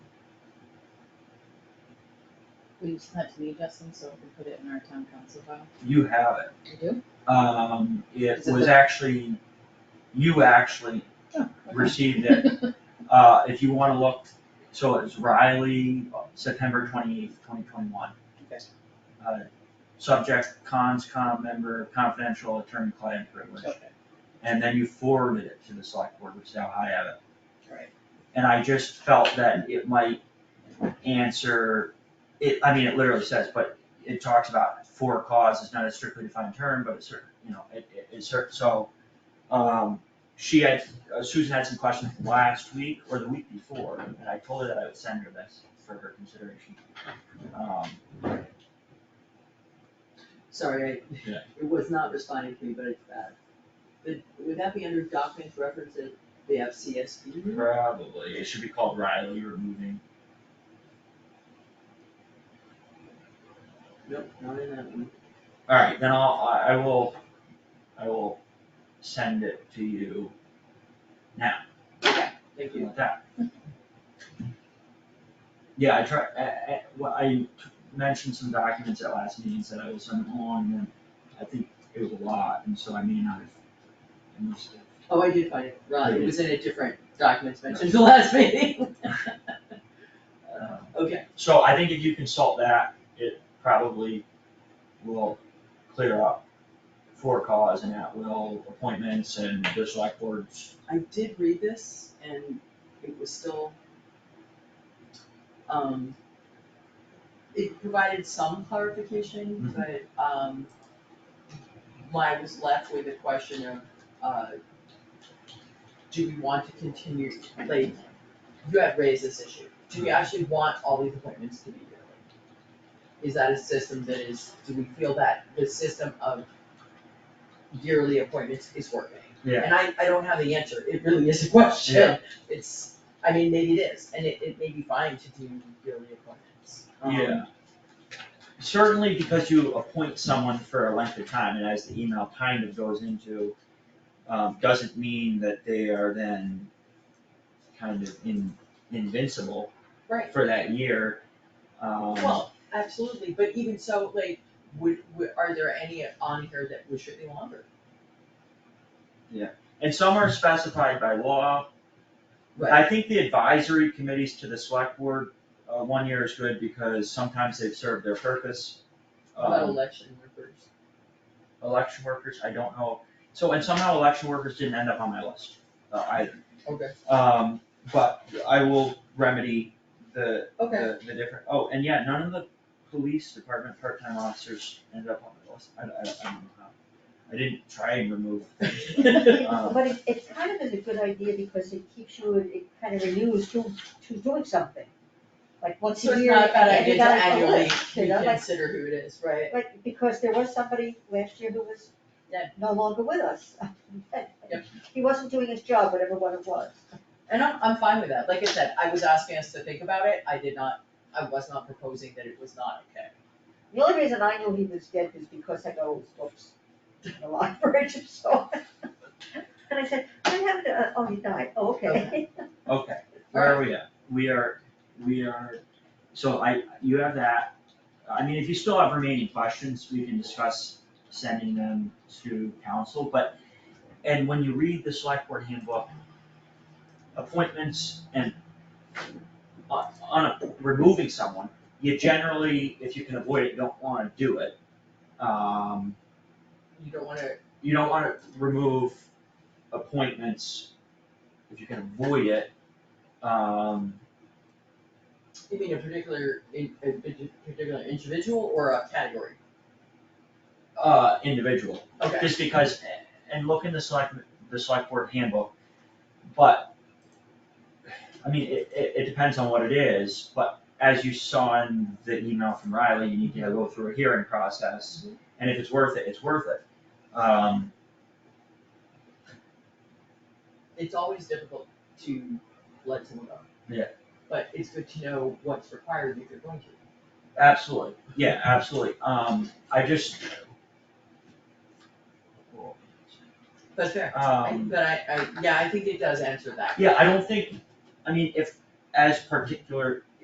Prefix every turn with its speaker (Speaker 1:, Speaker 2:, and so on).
Speaker 1: Will you send that to me, Justin, so we can put it in our town council file?
Speaker 2: You have it.
Speaker 1: You do?
Speaker 2: Um, it
Speaker 1: Is it
Speaker 2: was
Speaker 1: the-
Speaker 2: actually, you actually
Speaker 1: Oh, okay.
Speaker 2: received it. Uh, if you wanna look, so it's Riley, September twenty-eighth, twenty twenty-one.
Speaker 1: Okay.
Speaker 2: Uh, subject, cons, com member, confidential, attorney-client privilege.
Speaker 1: Okay,
Speaker 2: And then you forwarded it to the select board, which is how I have it.
Speaker 1: alright,
Speaker 2: And I just felt that it might answer, it, I mean, it literally says, but it talks about for cause, it's not a strictly defined term, but it's certain, you know, it, it, it's certain, so. Um, she had, uh, Susan had some questions last week or the week before, and I told her that I would send her this for her consideration. Um,
Speaker 3: Sorry, I,
Speaker 2: Yeah.
Speaker 3: it was not responding to me, but it's bad. Would, would that be under documents reference at the FCSD?
Speaker 2: probably, it should be called Riley removing,
Speaker 3: Nope, not in that one.
Speaker 2: alright, then I'll, I, I will, I will send it to you.
Speaker 3: Thank
Speaker 2: something
Speaker 3: you.
Speaker 2: like that. Yeah, I try, I, I, well, I t- mentioned some documents at last meeting, said I was sending along, and then I think it was a lot, and so I may not have. I must have-
Speaker 3: Oh, I did find it, right,
Speaker 2: Yeah.
Speaker 3: it was in a different documents mentioned at the last meeting.
Speaker 2: um,
Speaker 3: Okay,
Speaker 2: So I think if you consult that, it probably will clear up for cause and at will appointments and the select boards.
Speaker 3: I did read this and it was still, um, it provided some clarification,
Speaker 2: Mhm.
Speaker 3: but, um, I was left with the question of, uh, do we want to continue, like, you had raised this issue, do we actually want all these appointments to be yearly? Is that a system that is, do we feel that the system of yearly appointments is working?
Speaker 2: Yeah.
Speaker 3: And I, I don't have the answer, it really is a question,
Speaker 2: Yeah.
Speaker 3: it's, I mean, maybe it is, and it, it may be fine to do yearly appointments. Um,
Speaker 2: Yeah. Certainly because you appoint someone for a length of time, and as the email kind of goes into, um, doesn't mean that they are then kind of in, invincible
Speaker 3: Right.
Speaker 2: for that year. Um,
Speaker 3: Well, absolutely, but even so, like, would, would, are there any on here that we should be longer?
Speaker 2: and some are specified by law. I think the advisory committees to the select board, uh, one year is good because sometimes they've served their purpose.
Speaker 3: How About
Speaker 2: Um,
Speaker 3: election workers,
Speaker 2: election workers, I don't know. So, and somehow election workers didn't end up on my list, uh, either.
Speaker 3: okay,
Speaker 2: Um, but I will remedy the,
Speaker 3: okay,
Speaker 2: the, the different, oh, and yeah, none of the police department part-time officers ended up on my list. I, I, I don't know how. I didn't try and remove
Speaker 3: okay.
Speaker 2: Um,
Speaker 4: But it, it's kind of is a good idea because it keeps you, it kind of renews who, who's doing something. Like once
Speaker 3: So
Speaker 4: a
Speaker 3: it's
Speaker 4: year,
Speaker 3: not a bad
Speaker 4: every
Speaker 3: idea to
Speaker 4: guy's on the
Speaker 3: annually
Speaker 4: list, you know, like,
Speaker 3: reconsider who it is, right?
Speaker 4: like, because there was somebody last year who was
Speaker 3: Yeah.
Speaker 4: no longer with us.
Speaker 3: Yep.
Speaker 4: He wasn't doing his job, whatever one it was.
Speaker 3: And I'm, I'm fine with that, like I said, I was asking us to think about it, I did not, I was not proposing that it was not okay.
Speaker 4: The only reason I knew he was dead was because I go, whoops, in the library, so. And I said, what happened to, uh, oh, he died, oh, okay.
Speaker 2: Okay, where are we at? We are, we are, so I, you have that. I mean, if you still have remaining questions, we can discuss sending them to council, but, and when you read the select board handbook, appointments and on, on a- removing someone, you generally, if you can avoid it, don't wanna do it. Um,
Speaker 3: You don't wanna,
Speaker 2: you don't wanna remove appointments if you can avoid it. Um,
Speaker 3: you mean a particular, in, a parti- particular individual or a category?
Speaker 2: uh, individual,
Speaker 3: Okay,
Speaker 2: just because, and look in the select, the select board handbook, but, I mean, it, it, it depends on what it is, but as you saw in the email from Riley, you need to go through a hearing process, and if it's worth it, it's worth it. Um,
Speaker 3: it's always difficult to let someone go.
Speaker 2: Yeah.
Speaker 3: But it's good to know what's required if you're going to.
Speaker 2: absolutely, yeah, absolutely, um, I just.
Speaker 3: That's fair. I-
Speaker 2: Um.
Speaker 3: But I, I, yeah, I think it does answer that.
Speaker 2: Yeah, I don't think, I mean, if, as particular,